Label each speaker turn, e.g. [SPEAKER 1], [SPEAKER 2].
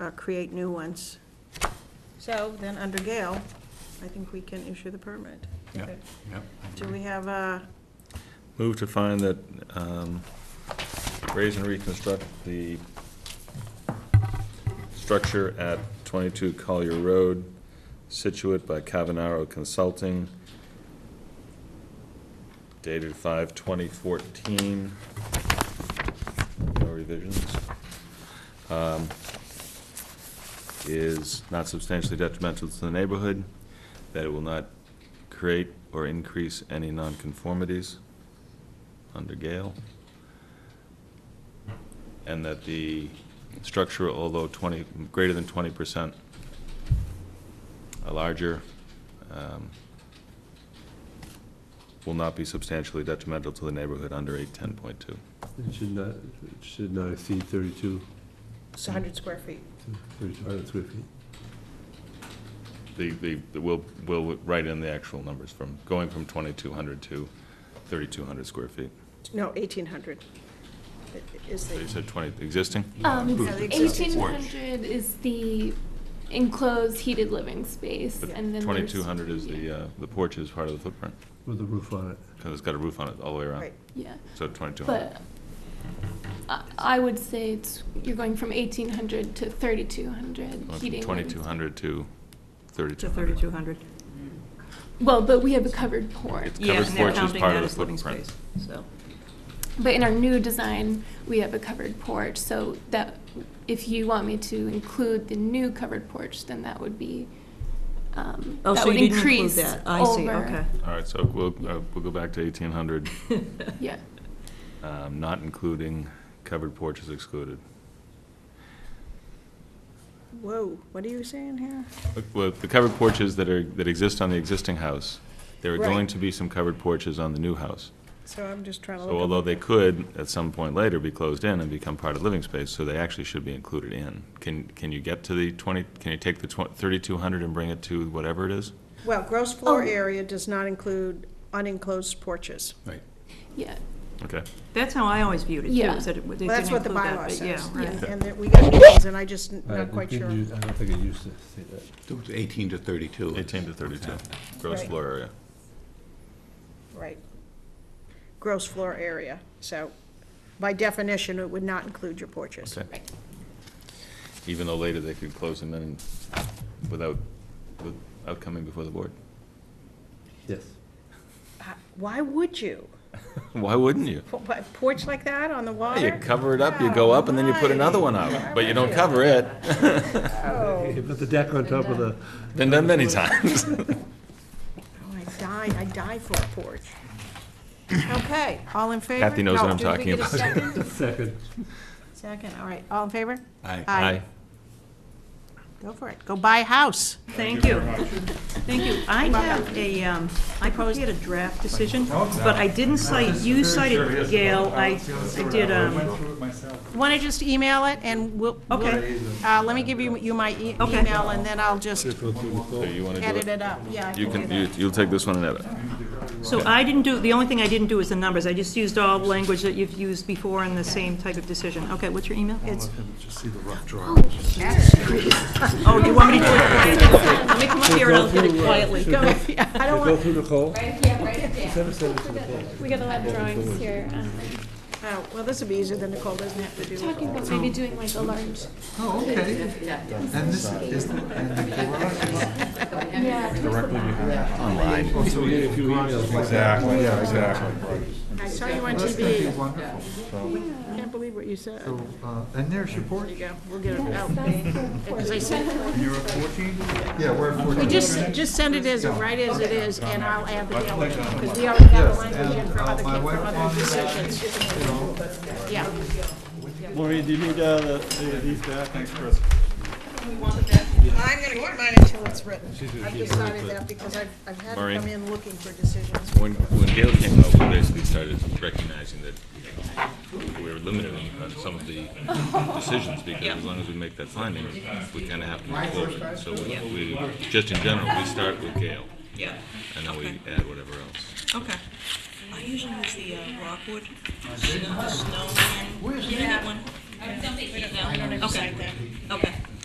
[SPEAKER 1] uh, create new ones. So then, under Gale, I think we can issue the permit.
[SPEAKER 2] Yeah, yeah.
[SPEAKER 1] Do we have uh, a,
[SPEAKER 3] Move to find that, um, raise and reconstruct the structure at 22 Collier Road, Situate by Cavanaro Consulting, dated 5/2014. No revisions. Um, Is not substantially detrimental to the neighborhood, that it will not create or increase any nonconformities under Gale. And that the structure, although 20, greater than 20%, a larger, um, will not be substantially detrimental to the neighborhood under 810.2.
[SPEAKER 2] It should not, it should not exceed 32,
[SPEAKER 1] it's 100 square feet?
[SPEAKER 2] 32 uh, square feet.
[SPEAKER 3] The, the, the- we'll, we'll write in the actual numbers from, going from 2,200 to 3,200 square feet.
[SPEAKER 1] No, 1,800 is
[SPEAKER 3] So You
[SPEAKER 1] the,
[SPEAKER 3] said 20, existing?
[SPEAKER 1] Yeah,
[SPEAKER 4] Um,
[SPEAKER 1] the
[SPEAKER 4] eighteen
[SPEAKER 1] existing
[SPEAKER 4] hundred is the enclosed heated living space,
[SPEAKER 3] But
[SPEAKER 4] and then there's.
[SPEAKER 3] 2,200 is the, uh, the porch is part of the footprint,
[SPEAKER 2] With a roof on it.
[SPEAKER 3] because it's got a roof on it all the way around.
[SPEAKER 1] right,
[SPEAKER 4] Yeah,
[SPEAKER 3] So 2,200.
[SPEAKER 4] but I, I would say it's, you're going from eighteen hundred to thirty-two hundred
[SPEAKER 3] Went from
[SPEAKER 4] heating. living
[SPEAKER 3] 2,200 to
[SPEAKER 5] To
[SPEAKER 3] 3,200.
[SPEAKER 5] 3,200.
[SPEAKER 4] space. Well, but we have a covered porch,
[SPEAKER 3] It's
[SPEAKER 5] Yeah,
[SPEAKER 3] covered
[SPEAKER 5] and they're
[SPEAKER 3] porch is
[SPEAKER 5] counting
[SPEAKER 3] part of
[SPEAKER 5] that
[SPEAKER 3] the
[SPEAKER 5] as living
[SPEAKER 3] footprint.
[SPEAKER 5] space, So,
[SPEAKER 4] but in our new design, we have a covered porch, so that, if you want me to include the new covered porch, then that would be, um,
[SPEAKER 5] oh,
[SPEAKER 4] that
[SPEAKER 5] so
[SPEAKER 4] would
[SPEAKER 5] you didn't include
[SPEAKER 4] increase
[SPEAKER 5] that. I see,
[SPEAKER 4] over-
[SPEAKER 5] okay.
[SPEAKER 3] All right, so we'll, uh, we'll go back to 1,800,
[SPEAKER 4] Yeah.
[SPEAKER 3] um, not including covered porch is excluded.
[SPEAKER 1] whoa, what are you saying here?
[SPEAKER 3] Well, the covered porches that are, that exist on the existing house, there are
[SPEAKER 1] Right. Oh,
[SPEAKER 3] going to be some covered porches on the new house.
[SPEAKER 1] So I'm just trying to
[SPEAKER 3] So
[SPEAKER 1] look.
[SPEAKER 3] although they could, at some point later, be closed in and become part of living space, so they actually should be included in. Can, can you get to the 20, can you take the 3,200 and bring it to whatever it is?
[SPEAKER 1] at- Well, gross floor
[SPEAKER 4] Oh.
[SPEAKER 1] area does not include unenclosed porches.
[SPEAKER 2] Right.
[SPEAKER 4] Yeah,
[SPEAKER 3] Okay.
[SPEAKER 5] That's how I always viewed it, too,
[SPEAKER 4] Yeah.
[SPEAKER 5] is that it- they
[SPEAKER 1] Well,
[SPEAKER 5] didn't
[SPEAKER 1] that's what
[SPEAKER 5] include
[SPEAKER 1] the
[SPEAKER 5] that.
[SPEAKER 1] bylaw
[SPEAKER 5] but
[SPEAKER 1] says,
[SPEAKER 5] Yeah, right.
[SPEAKER 1] and- and that we got these, and I just not quite sure.
[SPEAKER 2] I don't think it used to say that.
[SPEAKER 6] It was 18 to 32.
[SPEAKER 3] 18 to 32, gross
[SPEAKER 1] Right.
[SPEAKER 3] floor area.
[SPEAKER 1] Right. Gross floor area, so by definition, it would not include your porches.
[SPEAKER 3] Okay.
[SPEAKER 4] right.
[SPEAKER 3] even though later they could close them in without, without coming before the board.
[SPEAKER 2] Yes.
[SPEAKER 1] Uh, Why would you?
[SPEAKER 3] Why wouldn't you?
[SPEAKER 1] Po- po- Porch like that on the
[SPEAKER 3] You
[SPEAKER 1] water?
[SPEAKER 3] cover it up, you go up, and then you put another one out, but you don't cover it.
[SPEAKER 1] Oh,
[SPEAKER 2] You put the deck on top of
[SPEAKER 1] uh,
[SPEAKER 2] the,
[SPEAKER 3] Been done many times.
[SPEAKER 1] oh, I die, I die for a porch. Okay, all in favor?
[SPEAKER 3] Kathy knows
[SPEAKER 1] No,
[SPEAKER 3] what I'm
[SPEAKER 1] did we
[SPEAKER 3] talking
[SPEAKER 1] get a Second,
[SPEAKER 3] about.
[SPEAKER 2] second.
[SPEAKER 1] Second, all right, all in favor?
[SPEAKER 6] Aye.
[SPEAKER 1] Go for it, go buy a house.
[SPEAKER 5] Thank you. Thank you. I have a, um, I probably had a draft decision, but I didn't cite, you cited Gail, I, I did, um,
[SPEAKER 1] Want to just email it, and we'll,
[SPEAKER 5] Okay.
[SPEAKER 1] we'll- uh, let me give you, you my e-
[SPEAKER 5] Okay.
[SPEAKER 1] email, and then I'll just
[SPEAKER 3] So you want to
[SPEAKER 1] edit
[SPEAKER 3] do it?
[SPEAKER 1] it up, yeah. I
[SPEAKER 3] You
[SPEAKER 1] do
[SPEAKER 3] can,
[SPEAKER 1] that.
[SPEAKER 3] you- you'll take this one and edit.
[SPEAKER 5] so I didn't do, the only thing I didn't do is the numbers. I just used all language that you've used before in the same type of decision. Okay, what's your email? It's. Oh, you want me to do it quietly? Let me come up here and I'll get it quietly. Go ahead.
[SPEAKER 1] I don't want,
[SPEAKER 2] through Nicole?
[SPEAKER 4] Yeah, right, We got a lot of drawings here. um,
[SPEAKER 1] oh, well, this would be easier than Nicole doesn't have to do. it.
[SPEAKER 4] Talking about maybe doing like a large,
[SPEAKER 6] Oh, okay. And this is, and the garage
[SPEAKER 4] yeah,
[SPEAKER 6] Online.
[SPEAKER 2] So we get a few emails.
[SPEAKER 7] Exactly, yeah, exactly.
[SPEAKER 1] I saw you on
[SPEAKER 6] That's going to be
[SPEAKER 1] TV.
[SPEAKER 6] wonderful. So,
[SPEAKER 1] I can't believe what you said. There
[SPEAKER 6] uh, And there's your porch.
[SPEAKER 1] you go. We'll get it out. Because I said,
[SPEAKER 7] You're at 14?
[SPEAKER 6] Yeah, we're at 14.
[SPEAKER 1] just, just send it as, right as it is, and I'll add the yellow. Because we already have a language in for other,
[SPEAKER 6] My
[SPEAKER 1] for
[SPEAKER 6] wife
[SPEAKER 1] other
[SPEAKER 6] wanted that.
[SPEAKER 1] decisions. Yeah.
[SPEAKER 8] Maureen, do you need uh, the- the- these back?
[SPEAKER 7] Thanks, Chris.
[SPEAKER 1] I'm gonna keep mine until it's written. I've decided that because I've, I've had to
[SPEAKER 3] Maureen?
[SPEAKER 1] come in looking for decisions.
[SPEAKER 3] When, when Gail came up, we basically started recognizing that we were limited on some of the decisions, because as long as we make that finding, we kind of have to move forward. So we- we, just in general, we start with Gail,
[SPEAKER 9] Yeah,
[SPEAKER 3] and then we add whatever else.
[SPEAKER 9] okay. I usually use the uh, rockwood, snow, snow one. Where's that one? I don't think Okay, okay.